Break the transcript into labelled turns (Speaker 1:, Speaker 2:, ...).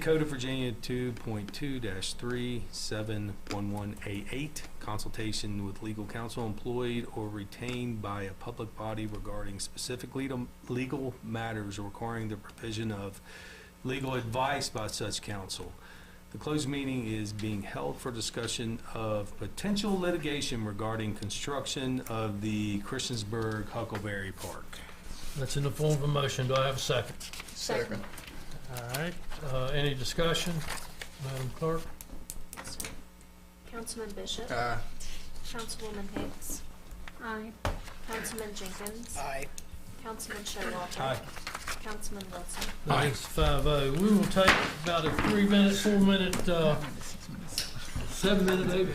Speaker 1: Code of Virginia two point two three seven one one A eight, consultation with legal counsel employed or retained by a public body regarding specific legal, legal matters requiring the provision of legal advice by such counsel. The closed meeting is being held for discussion of potential litigation regarding construction of the Christiansburg Huckleberry Park.
Speaker 2: That's in the form of a motion. Do I have a second?
Speaker 3: Second.
Speaker 2: All right, uh, any discussion? Madam Clerk?
Speaker 3: Councilman Bishop.
Speaker 4: Aye.
Speaker 3: Councilwoman Hicks. Aye. Councilman Jenkins.
Speaker 4: Aye.
Speaker 3: Councilman Showalter.
Speaker 1: Aye.
Speaker 3: Councilman Wilson.
Speaker 2: That is five oh. We will take about a three-minute, four-minute, uh, seven-minute, eight